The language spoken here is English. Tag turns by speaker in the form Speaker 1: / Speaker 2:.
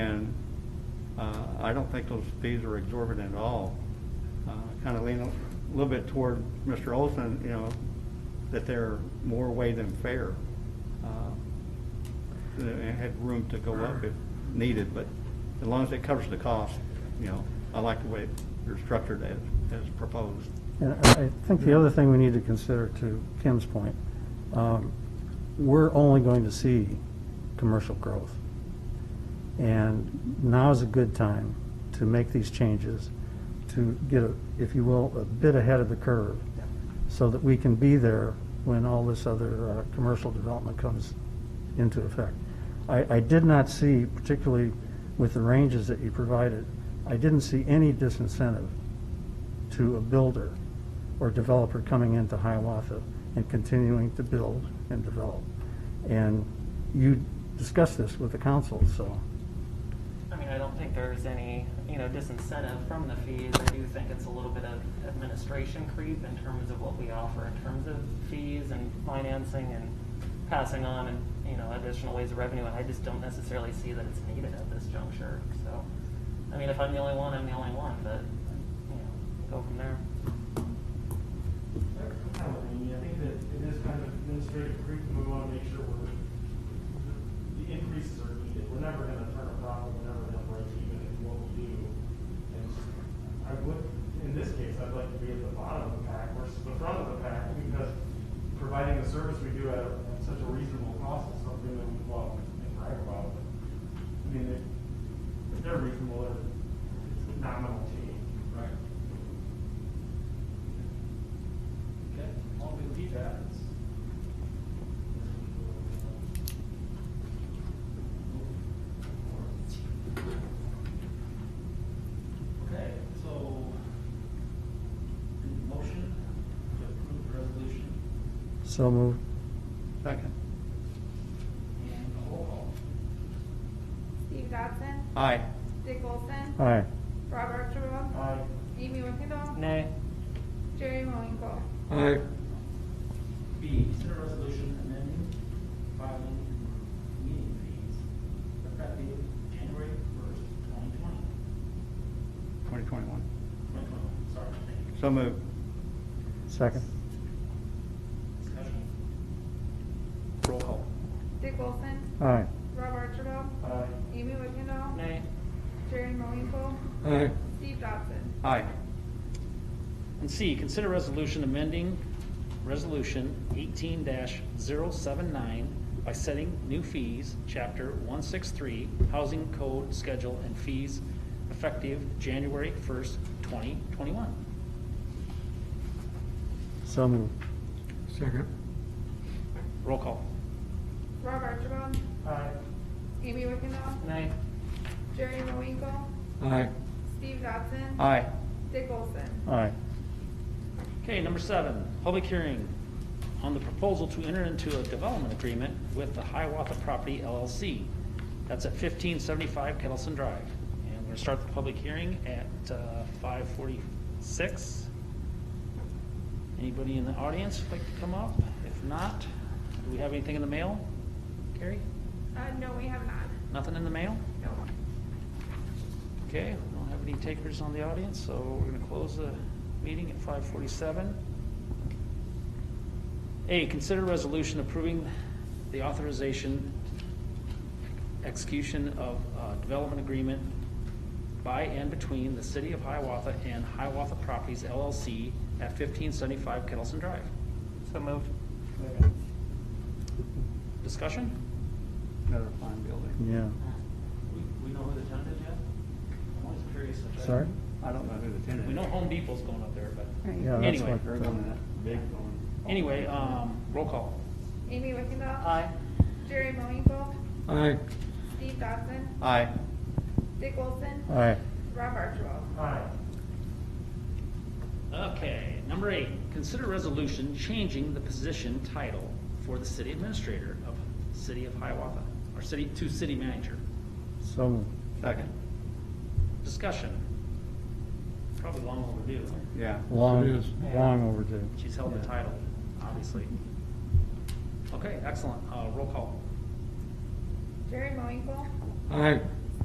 Speaker 1: uh, I don't think those fees are exorbitant at all. Kind of lean a little bit toward Mr. Olson, you know, that they're more way than fair. Uh, It had room to go up if needed, but as long as it covers the cost, you know, I like the way they're structured as, as proposed.
Speaker 2: And I I think the other thing we need to consider, to Kim's point, um, we're only going to see commercial growth. And now is a good time to make these changes, to get, a- if you will, a bit ahead of the curve, so that we can be there when all this other uh, commercial development comes into effect. I, I did not see, particularly with the ranges that you provided, I didn't see any disincentive to a builder or developer coming into Hiawatha and continuing to build and develop. And you discussed this with the council, so,
Speaker 3: I mean, I don't think there's any, you know, disincentive from the fees. I do think it's a little bit of administration creep in terms of what we offer in terms of fees and financing and passing on and, you know, additional ways of revenue. And I just don't necessarily see that it's needed at this juncture, so. I mean, if I'm the only one, I'm the only one, but, you know, go from there.
Speaker 4: I mean, I think that it is kind of administrative creep, and we want to make sure we're, the increases are needed. We're never going to turn a profit, we're never going to break even in what we do. And I would, in this case, I'd like to be at the bottom of the pack versus the front of the pack, because providing the service we do at at such a reasonable cost is something that we love and brag about. I mean, if if they're reasonable, they're- it's a nominal change.
Speaker 5: Right. Okay, all good feedbacks. Okay, so, the motion to approve the resolution
Speaker 2: so moved.
Speaker 1: Second.
Speaker 5: and a roll call.
Speaker 6: Steve Dodson.
Speaker 1: Aye.
Speaker 6: Dick Olson.
Speaker 1: Uh.
Speaker 2: Aye.
Speaker 6: Robert Archibald.
Speaker 4: Aye.
Speaker 6: Amy Wickendall.
Speaker 3: Nay.
Speaker 6: Jerry Moinkle.
Speaker 1: Aye.
Speaker 5: B, consider resolution amending filing meeting fees effective January first, twenty twenty,
Speaker 1: 2021.
Speaker 5: twenty twenty-one, sorry, thank you.
Speaker 1: So moved.
Speaker 2: Second?
Speaker 5: Discussion?
Speaker 1: Roll call.
Speaker 6: Dick Olson.
Speaker 2: Aye.
Speaker 6: Rob Archibald.
Speaker 4: Aye.
Speaker 6: Amy Wickendall.
Speaker 3: Nay.
Speaker 6: Jerry Moinkle.
Speaker 1: Aye.
Speaker 6: Steve Dodson.
Speaker 1: Aye.
Speaker 7: And C, consider resolution amending Resolution 18-079 by setting new fees, Chapter 163, Housing Code Schedule and Fees, effective January 1st, 2021.
Speaker 2: So moved.
Speaker 7: Roll call.
Speaker 6: Rob Archibald.
Speaker 4: Aye.
Speaker 6: Amy Wickendall.
Speaker 3: Nay.
Speaker 6: Jerry Moinkle.
Speaker 1: Aye.
Speaker 6: Steve Dodson.
Speaker 1: Aye.
Speaker 6: Dick Olson.
Speaker 2: Aye.
Speaker 7: Okay, number seven, public hearing on the proposal to enter into a development agreement with the Hiawatha Property LLC. That's at fifteen seventy-five Kettleson Drive. And we're gonna start the public hearing at uh, five forty-six. Anybody in the audience like to come up? If not, do we have anything in the mail? Carrie?
Speaker 6: Uh, no, we have not.
Speaker 7: Nothing in the mail?
Speaker 6: No.
Speaker 7: Okay, we don't have any takers on the audience, so we're gonna close the meeting at five forty-seven. A, consider resolution approving the authorization execution of uh, development agreement by and between the city of Hiawatha and Hiawatha Properties LLC at fifteen seventy-five Kettleson Drive.
Speaker 3: So moved.
Speaker 7: Discussion?
Speaker 1: Another fine building.
Speaker 2: Yeah.
Speaker 5: We, we know who the tenant is yet? I'm always curious if that.
Speaker 2: Sorry?
Speaker 1: I don't know who the tenant is.
Speaker 7: We know Home Depot's going up there, but,
Speaker 2: Yeah, that's
Speaker 7: Anyway.
Speaker 2: what-
Speaker 1: They're going that big one.
Speaker 7: anyway, um, roll call.
Speaker 6: Amy Wickendall.
Speaker 3: Aye.
Speaker 6: Jerry Moinkle.
Speaker 1: Aye.
Speaker 6: Steve Dodson.
Speaker 1: Aye.
Speaker 6: Dick Olson.
Speaker 2: Aye.
Speaker 6: Rob Archibald.
Speaker 4: Aye.
Speaker 7: Okay, number eight, consider resolution changing the position title for the city administrator of City of Hiawatha, or city, to city manager.
Speaker 2: So moved.
Speaker 1: Second.
Speaker 7: Discussion. Probably long overdue.
Speaker 1: Yeah.
Speaker 2: Long, long overdue.
Speaker 7: She's held the
Speaker 2: Yeah.
Speaker 7: title, obviously. Okay, excellent. Uh, roll call.
Speaker 6: Jerry Moinkle.
Speaker 1: Aye.